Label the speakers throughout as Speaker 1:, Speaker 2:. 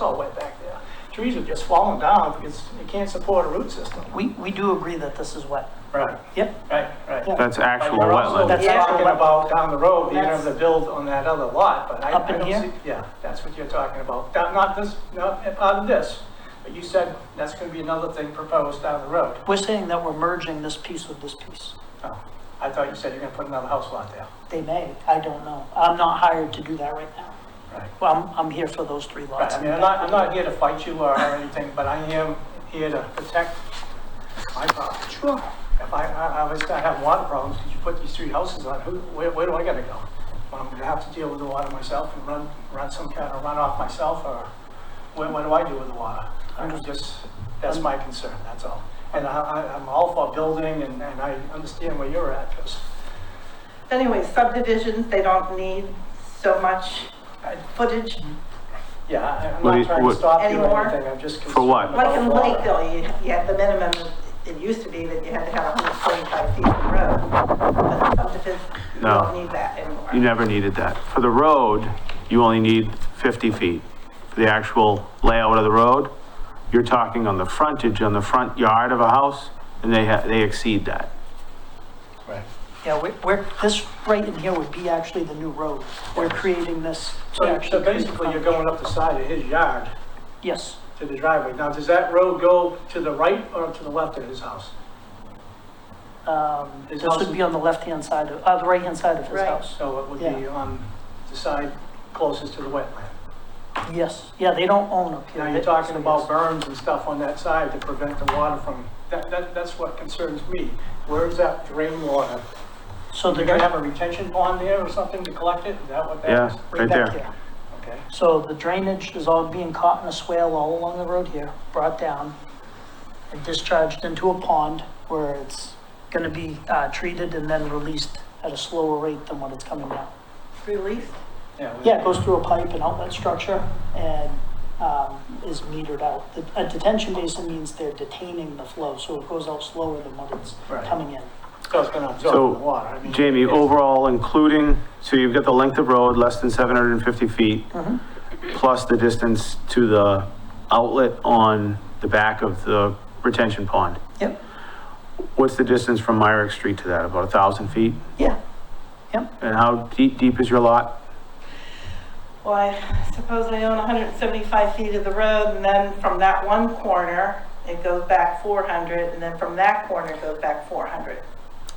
Speaker 1: all wet back there. Trees are just falling down because you can't support a root system.
Speaker 2: We, we do agree that this is wet.
Speaker 1: Right.
Speaker 2: Yep.
Speaker 1: Right, right.
Speaker 3: That's actual
Speaker 1: You're also
Speaker 3: wetland.
Speaker 2: That's actual
Speaker 1: talking
Speaker 2: wetland.
Speaker 1: about down the road, you're gonna have to
Speaker 2: That's-
Speaker 1: build on that other lot, but I,
Speaker 2: Up
Speaker 1: I
Speaker 2: in
Speaker 1: don't
Speaker 2: here?
Speaker 1: see. Yeah, that's what you're talking about. Not, not this, not part of this, but you said that's gonna be another thing proposed down the road.
Speaker 2: We're saying that we're merging this piece with this piece.
Speaker 1: Oh, I thought you said you're gonna put another house lot there.
Speaker 2: They may, I don't know. I'm not hired to do that right now.
Speaker 1: Right.
Speaker 2: Well, I'm, I'm here for those three
Speaker 1: Right,
Speaker 2: lots.
Speaker 1: I mean, I'm not, I'm not here to fight you or anything, but I am here to protect my property. Sure. If I, I, I was gonna have water problems, because you put these three houses on, who, where, where do I gotta go? Well, I'm gonna have to deal with the water myself and run, run some kind of runoff myself, or what, what do I do with the water? I'm just, that's my concern, that's all. And I, I, I'm all for building, and, and I understand where you're at, because
Speaker 4: Anyway, subdivisions, they don't need so much uh, footage,
Speaker 1: Yeah, I- I'm
Speaker 3: What do
Speaker 1: not
Speaker 3: you-
Speaker 1: trying to
Speaker 3: what-
Speaker 1: stop you or
Speaker 4: Anymore?
Speaker 1: anything, I'm just concerned.
Speaker 3: For what?
Speaker 4: like in
Speaker 1: about
Speaker 4: Lakeville, you, you had the minimum, it used to be that you had to have 125 feet of road. But subdivisions, you
Speaker 3: No.
Speaker 4: don't need that anymore.
Speaker 3: You never needed that. For the road, you only need 50 feet. For the actual layout of the road, you're talking on the frontage, on the front yard of a house, and they, ha- they exceed that.
Speaker 1: Right.
Speaker 2: Yeah, we're, we're, this right in here would be actually the new road. We're creating this to
Speaker 1: So, so
Speaker 2: actually. create-
Speaker 1: basically, you're going up the side of his yard
Speaker 2: Yes,
Speaker 1: to the driveway. Now, does that road go to the right or to the left of his house?
Speaker 2: um,
Speaker 1: His
Speaker 2: this
Speaker 1: house
Speaker 2: would be on the left-hand side of, uh, the right-hand side of his
Speaker 4: Right.
Speaker 2: house.
Speaker 1: So it would be
Speaker 2: Yeah.
Speaker 1: on the side closest to the wetland.
Speaker 2: Yes, yeah, they don't own up here.
Speaker 1: Now, you're talking about berms and stuff on that side to prevent the water from, that, that, that's what concerns me. Where is that drain water?
Speaker 2: So
Speaker 1: They're
Speaker 2: they're
Speaker 1: gonna have a retention pond there or something to collect it? Is that what that
Speaker 3: Yeah,
Speaker 1: is?
Speaker 3: right there.
Speaker 1: Okay.
Speaker 2: So the drainage is all being caught in a swale all along the road here, brought down and discharged into a pond where it's going to be uh, treated and then released at a slower rate than what it's coming down.
Speaker 4: Release,
Speaker 1: we-
Speaker 2: Yeah, it goes through a pipe and outlet structure and um, is metered out. The- A detention basin means they're detaining the flow, so it goes out slower than what it's
Speaker 1: Right.
Speaker 2: coming in.
Speaker 1: So it's gonna absorb the
Speaker 3: So,
Speaker 1: water. I mean,
Speaker 3: Jamie,
Speaker 1: it's-
Speaker 3: overall, including, so you've got the length of road, less than 750 feet,
Speaker 2: Mm-hmm.
Speaker 3: plus the distance to the outlet on the back of the retention pond.
Speaker 2: Yep.
Speaker 3: What's the distance from Myrick Street to that? About 1,000 feet?
Speaker 2: Yeah,
Speaker 3: And how deep, deep is your lot?
Speaker 4: well, I suppose I own 175 feet of the road, and then from that one corner, it goes back 400, and then from that corner, it goes back 400.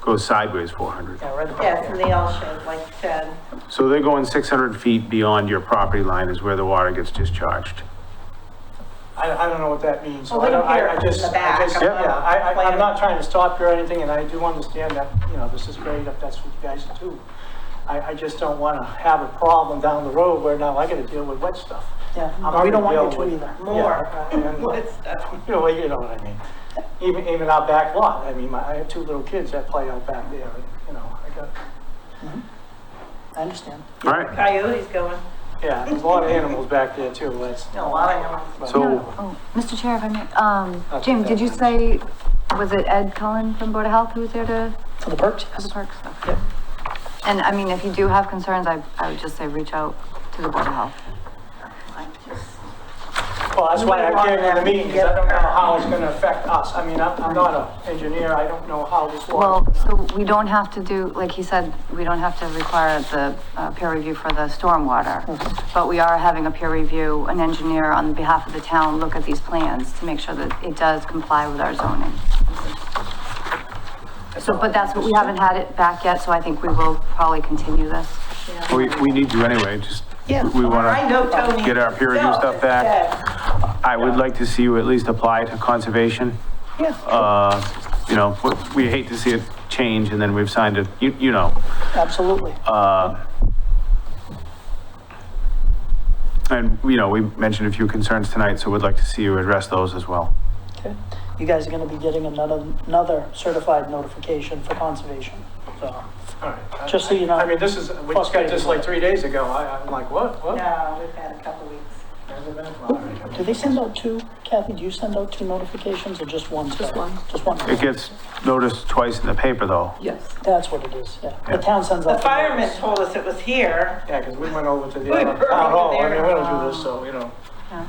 Speaker 3: Goes sideways 400.
Speaker 2: yeah, right about
Speaker 4: Yeah, it's in
Speaker 2: there.
Speaker 4: the L shape, like you said.
Speaker 3: So they're going 600 feet beyond your property line is where the water gets discharged.
Speaker 1: I, I don't know what that means. so
Speaker 4: Well,
Speaker 1: I don't- I-
Speaker 4: here,
Speaker 1: I
Speaker 4: in
Speaker 1: just-
Speaker 4: the
Speaker 1: I
Speaker 4: back,
Speaker 1: just-
Speaker 4: I'm not
Speaker 1: Yeah, I, I, I'm
Speaker 4: planning.
Speaker 1: not trying to stop you or anything, and I do understand that, you know, this is great if that's what you guys do. I, I just don't wanna have a problem down the road where now I gotta deal with wet stuff.
Speaker 2: Yeah,
Speaker 1: I'm
Speaker 2: we don't
Speaker 1: already
Speaker 2: want you
Speaker 1: dealing
Speaker 2: to
Speaker 1: with-
Speaker 2: either.
Speaker 4: More.
Speaker 1: Yeah, and-
Speaker 4: What is that?
Speaker 1: You know, well, you know what I mean. Even, even our back lot, I mean, my, I have two little kids that play out back there, and, you know, I got,
Speaker 2: I understand.
Speaker 3: All right,
Speaker 4: Coyotes going.
Speaker 1: yeah, there's a lot of animals back there too, that's.
Speaker 4: A lot of animals.
Speaker 1: but-
Speaker 3: so
Speaker 5: Oh, Mr. Chair, if I may, um,
Speaker 1: Okay,
Speaker 5: Jamie, did you
Speaker 1: yeah.
Speaker 5: say, was it Ed Cullen from Board of Health who was there to,
Speaker 2: For the perks?
Speaker 5: for the parks? Okay.
Speaker 2: Yep.
Speaker 5: And I mean, if you do have concerns, I, I would just say reach out to the Board of Health.
Speaker 4: I just-
Speaker 1: Well, that's why I came to the meeting, because I don't know
Speaker 4: Yeah.
Speaker 1: how it's gonna affect us. I mean, I'm, I'm not an engineer, I don't know how this
Speaker 5: Well,
Speaker 1: works.
Speaker 5: so we don't have to do, like he said, we don't have to require the uh, peer review for the stormwater. But we are having a peer review, an engineer on behalf of the town, look at these plans to make sure that it does comply with our zoning. So, but that's what, we haven't had it back yet, so I think we will probably continue this.
Speaker 3: we, we need you anyway, just,
Speaker 2: Yeah.
Speaker 3: we
Speaker 4: I
Speaker 3: want
Speaker 4: know Tony.
Speaker 3: Get our peer review
Speaker 4: No,
Speaker 3: stuff back.
Speaker 4: yeah.
Speaker 3: to, I would like to see you at least apply to conservation.
Speaker 2: Yeah,
Speaker 3: Uh, You know, we- we hate to see it change and then we've signed it, you, you know.
Speaker 2: absolutely.
Speaker 3: And, you know, we mentioned a few concerns tonight, so we'd like to see you address those as well.
Speaker 2: Okay. You guys are gonna be getting another, another certified notification for conservation, so.
Speaker 1: All right.
Speaker 2: Just so you know.
Speaker 1: I mean, this is, we just got this like three days ago, I, I'm like, what, what?
Speaker 4: No, we've had a couple weeks.
Speaker 1: Has it been? All right.
Speaker 2: Do they send out two? Kathy, do you send out two notifications or just one? Just one. Just one.
Speaker 3: It gets noticed twice in the paper though.
Speaker 6: Yes.
Speaker 2: That's what it is, yeah. The
Speaker 3: Yeah.
Speaker 2: town sends
Speaker 4: The
Speaker 2: out.
Speaker 4: fireman told us it was here.
Speaker 1: Yeah, because we went over to the
Speaker 4: We
Speaker 1: other
Speaker 4: were
Speaker 1: town hall, I
Speaker 4: over
Speaker 1: mean,
Speaker 4: there.
Speaker 1: we don't do this, so, you know.
Speaker 5: Yeah.